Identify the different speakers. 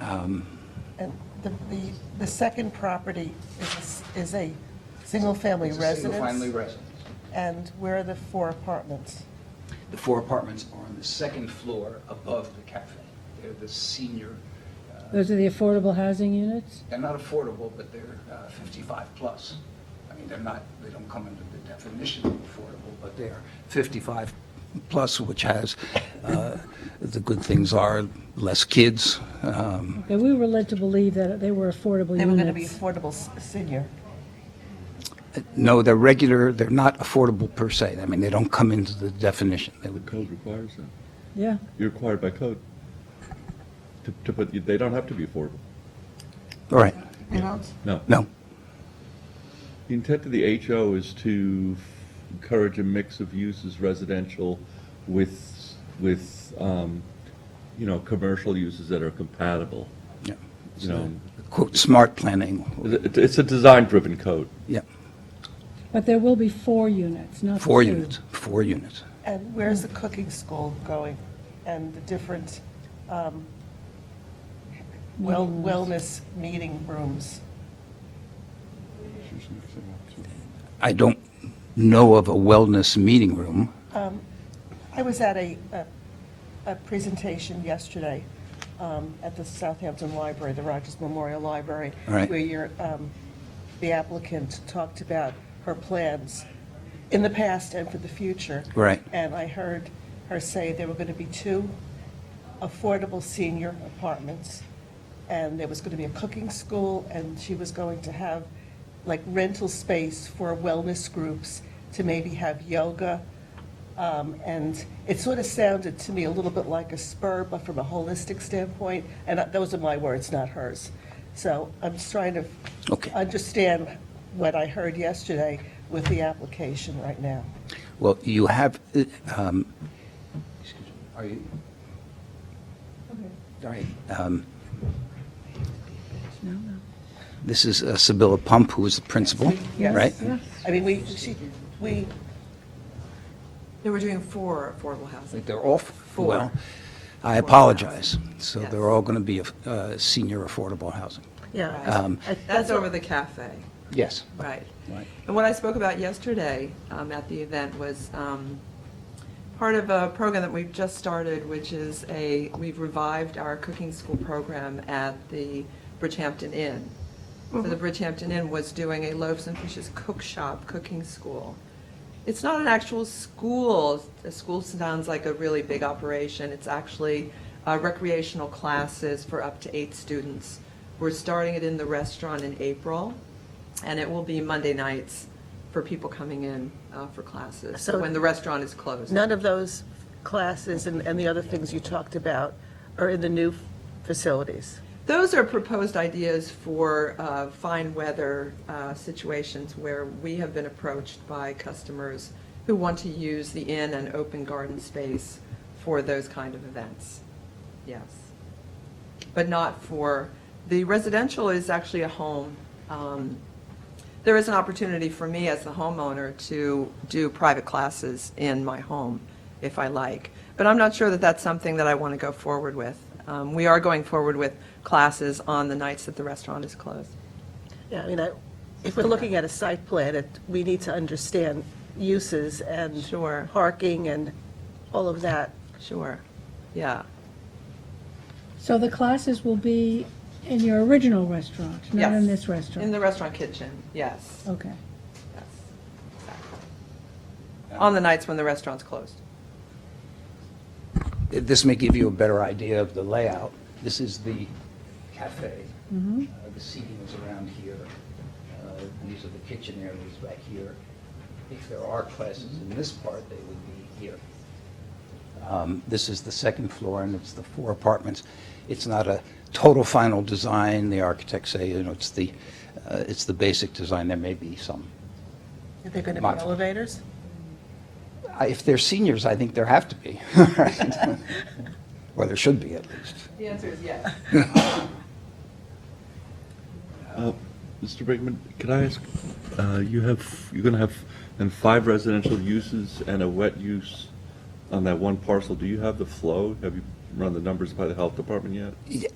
Speaker 1: Um,
Speaker 2: And the, the, the second property is, a s- is a single-family
Speaker 1: It's a single family
Speaker 2: residence?
Speaker 1: residence.
Speaker 2: And where are the four apartments?
Speaker 1: The four apartments are on the second floor above the cafe. They're the senior, uh,
Speaker 3: Those are the affordable housing units?
Speaker 1: they're not affordable, but they're uh, 55 plus. I mean, they're not, they don't come under the definition of affordable, but they're 55 plus, which has, uh, the good things are less kids. um,
Speaker 3: Okay, we were led to believe that they were affordable
Speaker 2: They were going to be
Speaker 3: units.
Speaker 2: affordable s- senior.
Speaker 1: No, they're regular, they're not affordable per se. I mean, they don't come into the definition. They would
Speaker 4: Code requires that.
Speaker 3: Yeah,
Speaker 4: You're required by code to, to put, they don't have to be affordable.
Speaker 1: All right,
Speaker 2: You don't?
Speaker 4: No.
Speaker 1: no.
Speaker 4: The intent of the HO is to encourage a mix of uses residential with, with, um, you know, commercial uses that are compatible,
Speaker 1: yeah.
Speaker 4: you know.
Speaker 1: Quote, "smart planning."
Speaker 4: It- It's a design-driven code.
Speaker 1: Yeah,
Speaker 3: but there will be four units, not
Speaker 1: four
Speaker 3: two.
Speaker 1: units, four units.
Speaker 2: And where's the cooking school going? And the different um, well
Speaker 3: Meeting
Speaker 2: wellness meeting rooms?
Speaker 1: I don't know of a wellness meeting room.
Speaker 2: I was at a, a- a presentation yesterday um, at the Southampton Library, the Rogers Memorial Library.
Speaker 1: All right.
Speaker 2: Where your, um, the applicant talked about her plans in the past and for the future.
Speaker 1: Right.
Speaker 2: And I heard her say there were going to be two affordable senior apartments, and there was going to be a cooking school, and she was going to have, like, rental space for wellness groups to maybe have yoga. Um, And it sort of sounded to me a little bit like a spur, but from a holistic standpoint, and those are my words, not hers. So I'm just trying to
Speaker 1: Okay.
Speaker 2: understand what I heard yesterday with the application right now.
Speaker 1: Well, you have, uh, um, excuse me, are you? All right. um, This is uh, Sibylla Pump, who is the principal,
Speaker 2: Yes.
Speaker 1: right?
Speaker 2: I mean, we, she, we,
Speaker 5: No, we're doing four affordable housing.
Speaker 1: They're all, well, I
Speaker 5: Four.
Speaker 1: apologize. So
Speaker 5: Yes.
Speaker 1: they're all going to be uh, senior affordable housing.
Speaker 2: yeah.
Speaker 1: Um,
Speaker 2: I- I-
Speaker 5: That's
Speaker 2: what-
Speaker 5: over the cafe,
Speaker 1: Yes.
Speaker 5: right.
Speaker 1: Right.
Speaker 5: And what I spoke about yesterday um, at the event was um, part of a program that we've just started, which is a, we've revived our cooking school program at the Bridgehampton Inn. So
Speaker 2: Mm-hmm.
Speaker 5: the Bridgehampton Inn was doing a loaves and fishes cook shop cooking school. It's not an actual school. A school sounds like a really big operation. It's actually uh, recreational classes for up to eight students. We're starting it in the restaurant in April, and it will be Monday nights for people coming in uh, for classes,
Speaker 2: So-
Speaker 5: when the restaurant is closed.
Speaker 2: None of those classes and, and the other things you talked about are in the new facilities.
Speaker 5: Those are proposed ideas for uh, fine weather uh, situations where we have been approached by customers who want to use the inn and open garden space for those kind of events. Yes. But not for, the residential is actually a home. Um, There is an opportunity for me as the homeowner to do private classes in my home if I like. But I'm not sure that that's something that I want to go forward with. Um, We are going forward with classes on the nights that the restaurant is closed.
Speaker 2: Yeah, I mean, I, if we're looking at a site plan, it, we need to understand uses and.
Speaker 5: Sure.
Speaker 2: Parking and all of that.
Speaker 5: Sure. Yeah.
Speaker 3: So the classes will be in your original restaurant, not in
Speaker 5: Yes.
Speaker 3: this
Speaker 5: In
Speaker 3: restaurant? Oh.
Speaker 5: the restaurant kitchen, yes.
Speaker 3: Okay.
Speaker 5: Yes. Exactly. On the nights when the restaurant's closed.
Speaker 1: This may give you a better idea of the layout. This is the cafe. Uh, The seating is around here. Uh, These are the kitchen areas back here. If there are classes in this part, they would be here. Um, This is the second floor, and it's the four apartments. It's not a total final design. The architects say, you know, it's the, uh, it's the basic design. There may be some.
Speaker 2: Are there going to be
Speaker 1: Module.
Speaker 2: elevators?
Speaker 1: I- If they're seniors, I think there have to be, right? Or there should be, at least.
Speaker 5: The answer is yes.
Speaker 4: Uh, Mr. Brinkman, can I ask, uh, you have, you're going to have, and five residential uses and a wet use on that one parcel. Do you have the flow? Have you run the numbers by the health department yet?